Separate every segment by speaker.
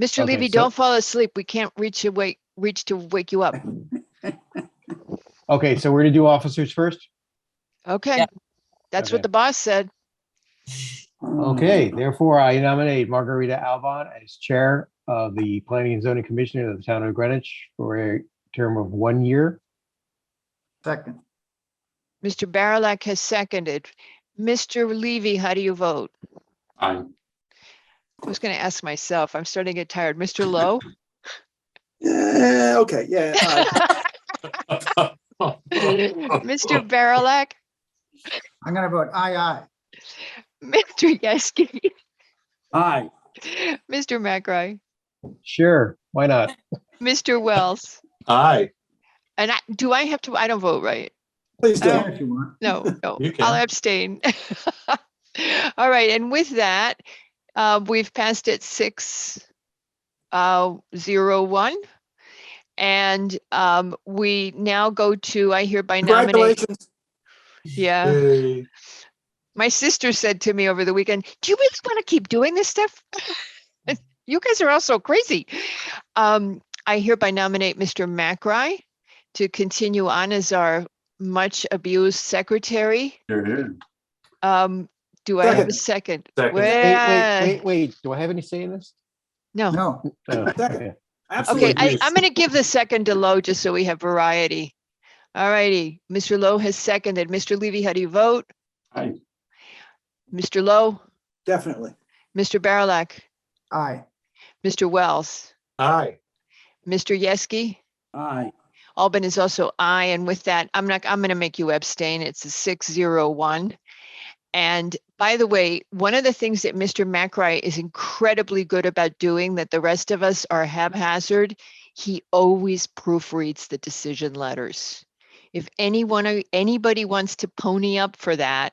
Speaker 1: Mr.
Speaker 2: Okay,
Speaker 1: Levy,
Speaker 2: so-
Speaker 1: don't fall asleep. We can't reach to wake, reach to wake you up.
Speaker 2: Okay, so we're gonna do officers first?
Speaker 1: Okay. That's
Speaker 2: Okay.
Speaker 1: what the boss said.
Speaker 2: Okay, therefore I nominate Margarita Alban as Chair of the Planning and Zoning Commission of the Town of Greenwich for a term of one year.
Speaker 3: Second,
Speaker 1: Mr. Barilak has seconded. Mr. Levy, how do you vote?
Speaker 4: Aye.
Speaker 1: I was going to ask myself. I'm starting to get tired. Mr. Lowe?
Speaker 5: Yeah, okay, yeah. aye.
Speaker 1: Mr. Barilak?
Speaker 3: I'm gonna vote aye, aye.
Speaker 1: Mr. Yaski?
Speaker 5: Aye,
Speaker 1: Mr. McRae?
Speaker 2: Sure, why not?
Speaker 1: Mr. Wells?
Speaker 4: Aye.
Speaker 1: And I, do I have to, I don't vote, right?
Speaker 5: please do.
Speaker 3: If you want.
Speaker 1: No, no,
Speaker 4: You
Speaker 1: I'll
Speaker 4: can.
Speaker 1: abstain. All right, and with that, uh, we've passed it six uh, zero one. And um, we now go to, I hereby nominate,
Speaker 5: Congratulations.
Speaker 1: yeah.
Speaker 4: Yay.
Speaker 1: My sister said to me over the weekend, do you really want to keep doing this stuff? You guys are all so crazy. Um, I hereby nominate Mr. McRae to continue on as our much abused secretary. Um, do I have a second?
Speaker 4: Second. Wait,
Speaker 2: Wait, wait,
Speaker 1: Well,
Speaker 2: wait, wait, do I have any say in this?
Speaker 1: No.
Speaker 3: No,
Speaker 2: Oh,
Speaker 5: Second.
Speaker 2: okay.
Speaker 1: Okay,
Speaker 5: Absolutely.
Speaker 1: I, I'm gonna give the second to Lowe just so we have variety. All righty, Mr. Lowe has seconded. Mr. Levy, how do you vote?
Speaker 4: Aye.
Speaker 1: Mr. Lowe,
Speaker 5: Definitely.
Speaker 1: Mr. Barilak,
Speaker 3: aye.
Speaker 1: Mr. Wells,
Speaker 4: Aye.
Speaker 1: Mr. Yeski?
Speaker 5: Aye.
Speaker 1: Albin is also aye, and with that, I'm not, I'm gonna make you abstain. It's a six zero one. And by the way, one of the things that Mr. McRae is incredibly good about doing that the rest of us are haphazard, he always proofreads the decision letters. If anyone, anybody wants to pony up for that,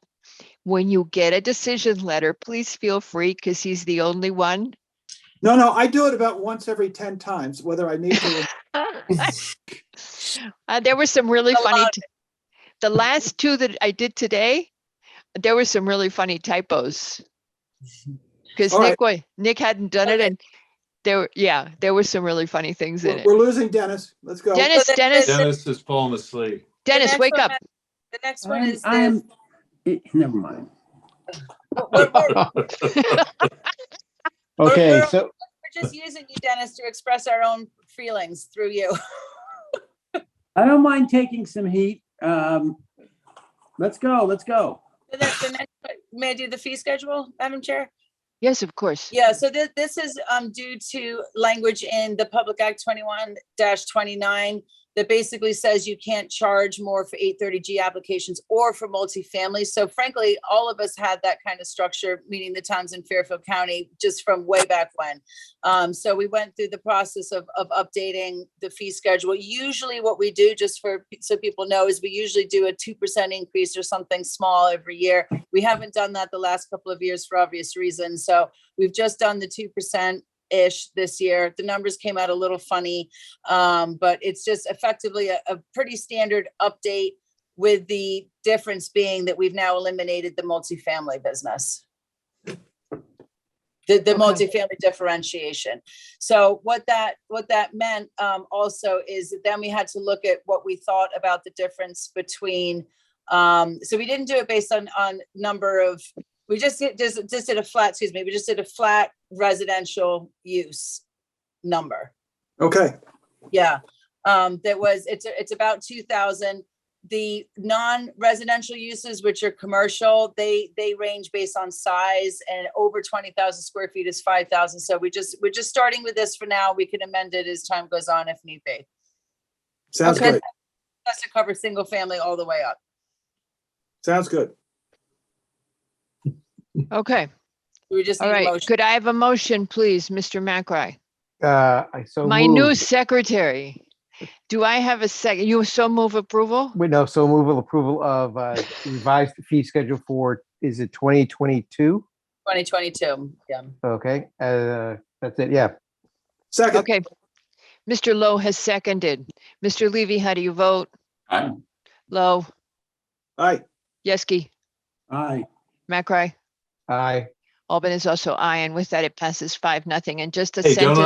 Speaker 1: when you get a decision letter, please feel free, because he's the only one.
Speaker 5: No, no, I do it about once every 10 times, whether I need to.
Speaker 1: Uh, there were some really funny, t- the last two that I did today, there were some really funny typos. Because
Speaker 5: All right.
Speaker 1: Nick, wa- Nick hadn't done it and there, were yeah, there were some really funny things in
Speaker 5: We're
Speaker 1: it.
Speaker 5: we're losing Dennis. Let's go.
Speaker 1: Dennis,
Speaker 6: the-
Speaker 1: Dennis,
Speaker 6: the-
Speaker 4: Dennis is falling asleep.
Speaker 1: Dennis,
Speaker 6: next
Speaker 1: wake
Speaker 6: one
Speaker 1: up.
Speaker 6: has- The next one
Speaker 7: I'm-
Speaker 6: is
Speaker 7: I'm-
Speaker 6: the,
Speaker 7: eh, Never mind.
Speaker 6: we're, we're-
Speaker 2: Okay, so,
Speaker 6: we're just using you, Dennis, to express our own feelings through you.
Speaker 7: I don't mind taking some heat. Um, let's go, let's go.
Speaker 6: The next- the next one- May I do the fee schedule, Madam Chair?
Speaker 1: Yes, of course.
Speaker 6: Yeah, so this, this is um, due to language in the Public Act twenty-one twenty-nine that basically says you can't charge more for eight thirty G applications or for multifamily. So frankly, all of us had that kind of structure, meaning the towns in Fairfield County, just from way back when. Um, so we went through the process of, of updating the fee schedule. Usually what we do, just for, so people know, is we usually do a two percent increase or something small every year. We haven't done that the last couple of years for obvious reasons. So We've just done the two percent ish this year. The numbers came out a little funny, um, but it's just effectively a, a pretty standard update with the difference being that we've now eliminated the multifamily business. The, the
Speaker 1: Okay.
Speaker 6: multifamily differentiation. So what that, what that meant, um, also is that then we had to look at what we thought about the difference between, um, so we didn't do it based on, on number of we just did, just, just did a flat, excuse me, we just did a flat residential use number.
Speaker 5: Okay,
Speaker 6: Yeah, um, that was, it's, it's about two thousand. The non-residential uses, which are commercial, they, they range based on size and over twenty thousand square feet is five thousand. So we just, we're just starting with this for now. We can amend it as time goes on if need be.
Speaker 5: sounds
Speaker 1: Okay.
Speaker 5: good.
Speaker 6: That's to cover single family all the way up.
Speaker 5: Sounds good.
Speaker 1: Okay,
Speaker 6: We just
Speaker 1: all
Speaker 6: need a
Speaker 1: right.
Speaker 6: motion.
Speaker 1: Could I have a motion, please, Mr. McRae?
Speaker 2: uh, I so
Speaker 1: My new
Speaker 2: moved.
Speaker 1: secretary. Do I have a second? You so move approval?
Speaker 2: Wait, no, so move with approval of uh, revised fee schedule for, is it 2022?
Speaker 6: Twenty twenty-two, yeah.
Speaker 2: Okay, uh, that's it, yeah.
Speaker 5: Second,
Speaker 1: Okay. Mr. Lowe has seconded. Mr. Levy, how do you vote?
Speaker 4: Aye.
Speaker 1: Lowe,
Speaker 5: aye,
Speaker 1: Yeski,
Speaker 7: Aye.
Speaker 1: Macrae,
Speaker 2: Aye.
Speaker 1: Albin is also aye, and with that, it passes five, nothing. And just a
Speaker 4: Hey, don't
Speaker 1: sentence.